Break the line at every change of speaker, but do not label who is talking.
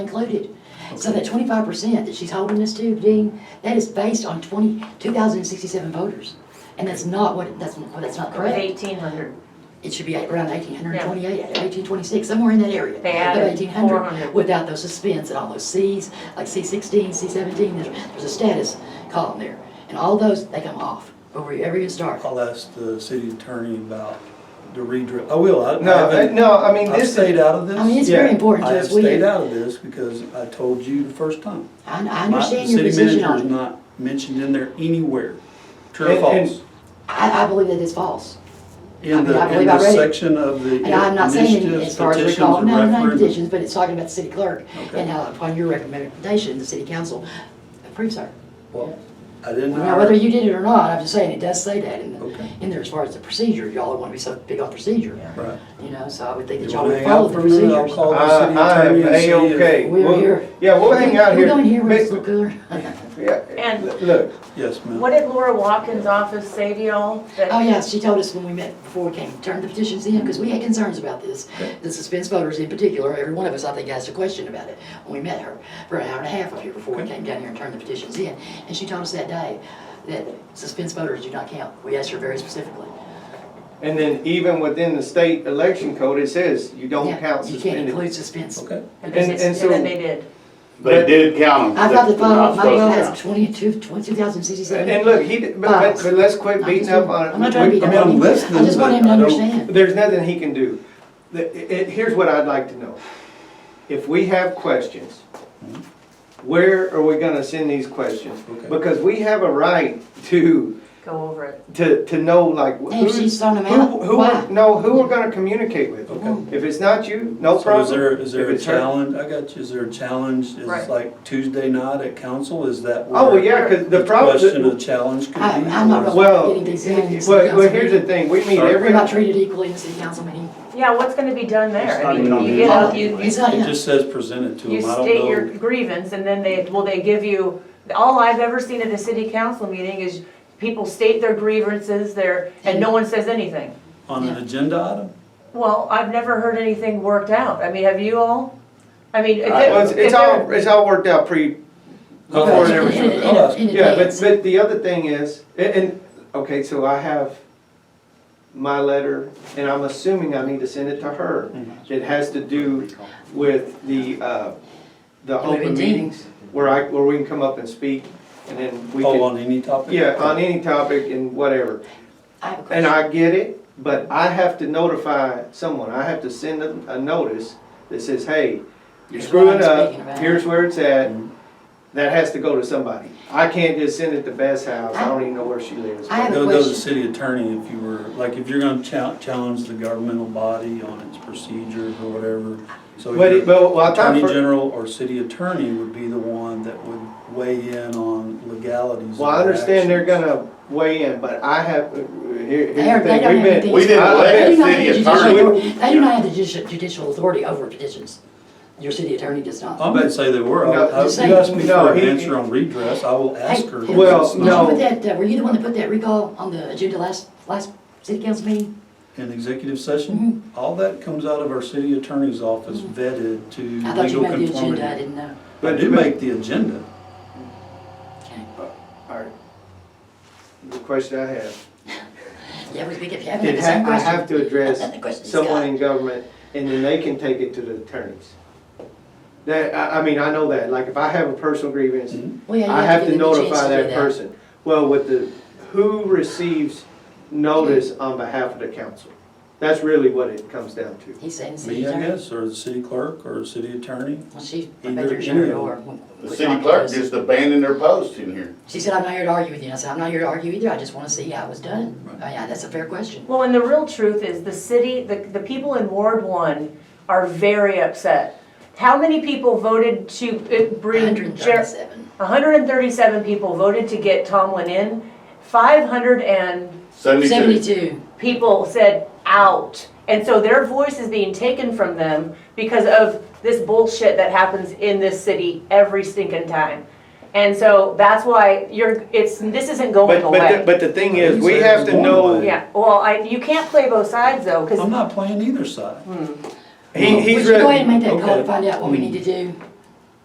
included. So that twenty-five percent that she's holding us to, Dean, that is based on 20 2,067 voters. And that's not what, that's, that's not correct.
Eighteen hundred.
It should be at around 1828, 1826,
Yeah.
somewhere in that area.
They added
Of eighteen hundred,
400.
without those suspends and all those Cs, like C sixteen, C seventeen, there's, there's a status column there. And all those, they come off, but wherever you start.
I'll ask the city attorney about the redrill. I will. I- I
No, uh,
haven't-
no, I mean,
I've
this
stayed
is,
out of this.
I mean, it's very
Yeah,
important
I
to
have
us, we,
stayed
I,
out of this because I told you the first time.
I
My-
understand your position
The city manager
on it.
is not mentioned in there anywhere, true or
And- and-
false,
I, I believe that it's false.
in
mean, I
the, in
believe I
the
read it.
section of the
And I'm not saying it
initiatives,
as far as
petitions,
recall,
and
no, not
referendums.
petitions, but it's talking about the city clerk
Okay.
and how upon your recommendation, the city council approves her.
Well, I didn't
Now, whether
hire,
you did it or not, I'm just saying it does say that in, the-
Okay.
in there as far as the procedure. Y'all want to be so big on procedure,
right.
you know, so I would think
You
that y'all
wanna
would
hang
follow
out
the
for a minute? I'll
procedures.
call
I-
the city
I am
attorney and see
A-okay.
if.
We're
Well,
here.
yeah, we'll hang out
We're
here.
going here,
But-
Mr. Cooler.
yeah,
And-
l- Look,
Yes, ma'am.
What did Laura Watkins' office say to y'all?
Oh, yeah, she told us when we met before we came, turn the petitions in, because we had concerns about this. The suspense voters in particular, every one of us, I think, asked a question about it when we met her for an hour and a half up here before we came down here and turned the petitions in. And she told us that day that suspense voters do not count. We asked her very specifically.
and then even within the state election code, it says you don't
Yeah,
count
You can't
suspended.
include suspense.
Okay.
And
and-
then
and so-
they did.
They did count them.
I've got the
They're
final,
not
my vote
supposed to
has twenty-two, twenty, two thousand sixty-seven.
And and look, he, did- but, but, but let's quit beating up
I'm not
on
trying to beat
I
up
mean,
on
I'm
him. I
listening,
just want him to
but I don't-
understand.
There's nothing he can do. The- it- it- here's what I'd like to know. If we have questions, where are we gonna send these questions?
Okay.
Because we have a right to,
Go over it.
to, to know like.
And if
who's-
she's throwing them
Who,
out,
who,
why?
no, who we're gonna communicate with.
Okay.
If it's not you, no
So
problem.
is there, is there
If
a
it's her-
challenge, I got you, is there a challenge, is
Right.
like Tuesday night at council, is that where?
Oh, well, yeah, cause the
Question of
problem,
challenge could be?
I- I'm not
or-
really-
well,
Getting these in, it's
well, well,
council
here's the
meeting.
thing, we meet
Sorry.
We're
every,
not treated equally in the city council meeting.
Yeah, what's gonna be done there?
It's
I
not even
mean,
on
you
the
get, up,
agenda.
you,
It's
you-
not,
It
yeah.
just says presented to
you
them, I don't
state your
know.
grievance and then they, will they give you, all I've ever seen at a city council meeting is people state their grievances there and no one says anything.
On an
Yeah.
agenda item?
Well, I've never heard anything worked out. I mean, have you all? I mean, if
I-
it-
well, it's,
if
it's
there-
all, it's all worked out pre,
I'll
Before
ask-
everything.
In- in-
I'll ask.
in
yeah, but,
advance.
but the other thing is, and, and, okay, so I have my letter, and I'm assuming I need to send it to her.
Mm-hmm.
It has to do with the, uh, the
Maybe
open
Dean.
meetings, where I, where we can come up and speak, and then we
Oh,
can,
on any topic?
yeah, on any topic and whatever.
I have a question.
And I get it, but I have to notify someone, I have to send them a notice that says, hey, you're
Here's what I'm
screwing up,
speaking about.
here's where it's at,
Mhm.
that has to go to somebody. I can't just send it to Beth's house, I don't even know where she lives.
I have a
Go go to
question.
the city attorney if you were, like, if you're gonna chal- challenge the governmental body on its procedures or whatever. So
But, it-
your
but, well, I thought,
attorney
for-
general or city attorney would be the one that would weigh in on legalities.
well, I
of their
understand they're
actions.
gonna weigh in, but I have, uh, here, here's
They are-
the
they
thing,
don't
we've
have anything.
been.
We didn't
I- I-
let
They do not have
city
the judicial
attorney-
authority- They do not have the judici- judicial authority over petitions. Your city attorney does not.
I'm gonna say they were. I-
No,
I-
just
You asked
saying.
me for an
No, he-
answer on redress, I will ask
Hey,
her.
Tim,
Well,
did you
no.
put that, uh, Were you the one that put that recall on the agenda last, last city council meeting?
In executive session,
Mm-hmm.
all that comes out of our city attorney's office vetted to
I thought you
legal
made the
conformity.
agenda, I didn't know.
I do make the agenda.
Okay.
Alright. The question I have,
Yeah, we we kept having
it
the same
ha- I
question.
have to
And the question
address
is
someone
God.
in government, and then they can take it to the attorneys. That, I, I mean, I know that, like, if I have a personal grievance,
Well, yeah, you
I have
give
to
them the chance
notify
to do
that person. Well, with the, who receives notice
Mm-hmm.
on behalf of the council? That's really what it comes down to.
He's saying the city
Me, I
attorney.
guess, or the city clerk, or the city attorney.
Well, she, I
Either-
bet you're sure
either.
or.
The city clerk just abandoned their post in here.
She said, I'm not here to argue with you. I said, I'm not here to argue either. I just want to see how it was done. Oh, yeah, that's a fair question.
Well, and the real truth is the city, the, the people in Ward One are very upset. How many people voted to uh, bring? Jer-
137.
137 people voted to get Tomlin in. 500 and
Seventy-two.
72.
people said out. And so their voice is being taken from them because of this bullshit that happens in this city every stinking time. And so that's why you're, it's, this isn't going
But, but,
away.
the- but the thing is,
You
we
said
have
it
to
was going
know,
away.
Yeah, well, I, you can't play both sides
Oh,
though, because
I'm not playing either side.
he, he's
Would you go ahead
really,
and make that call
okay.
to find out what we need to do?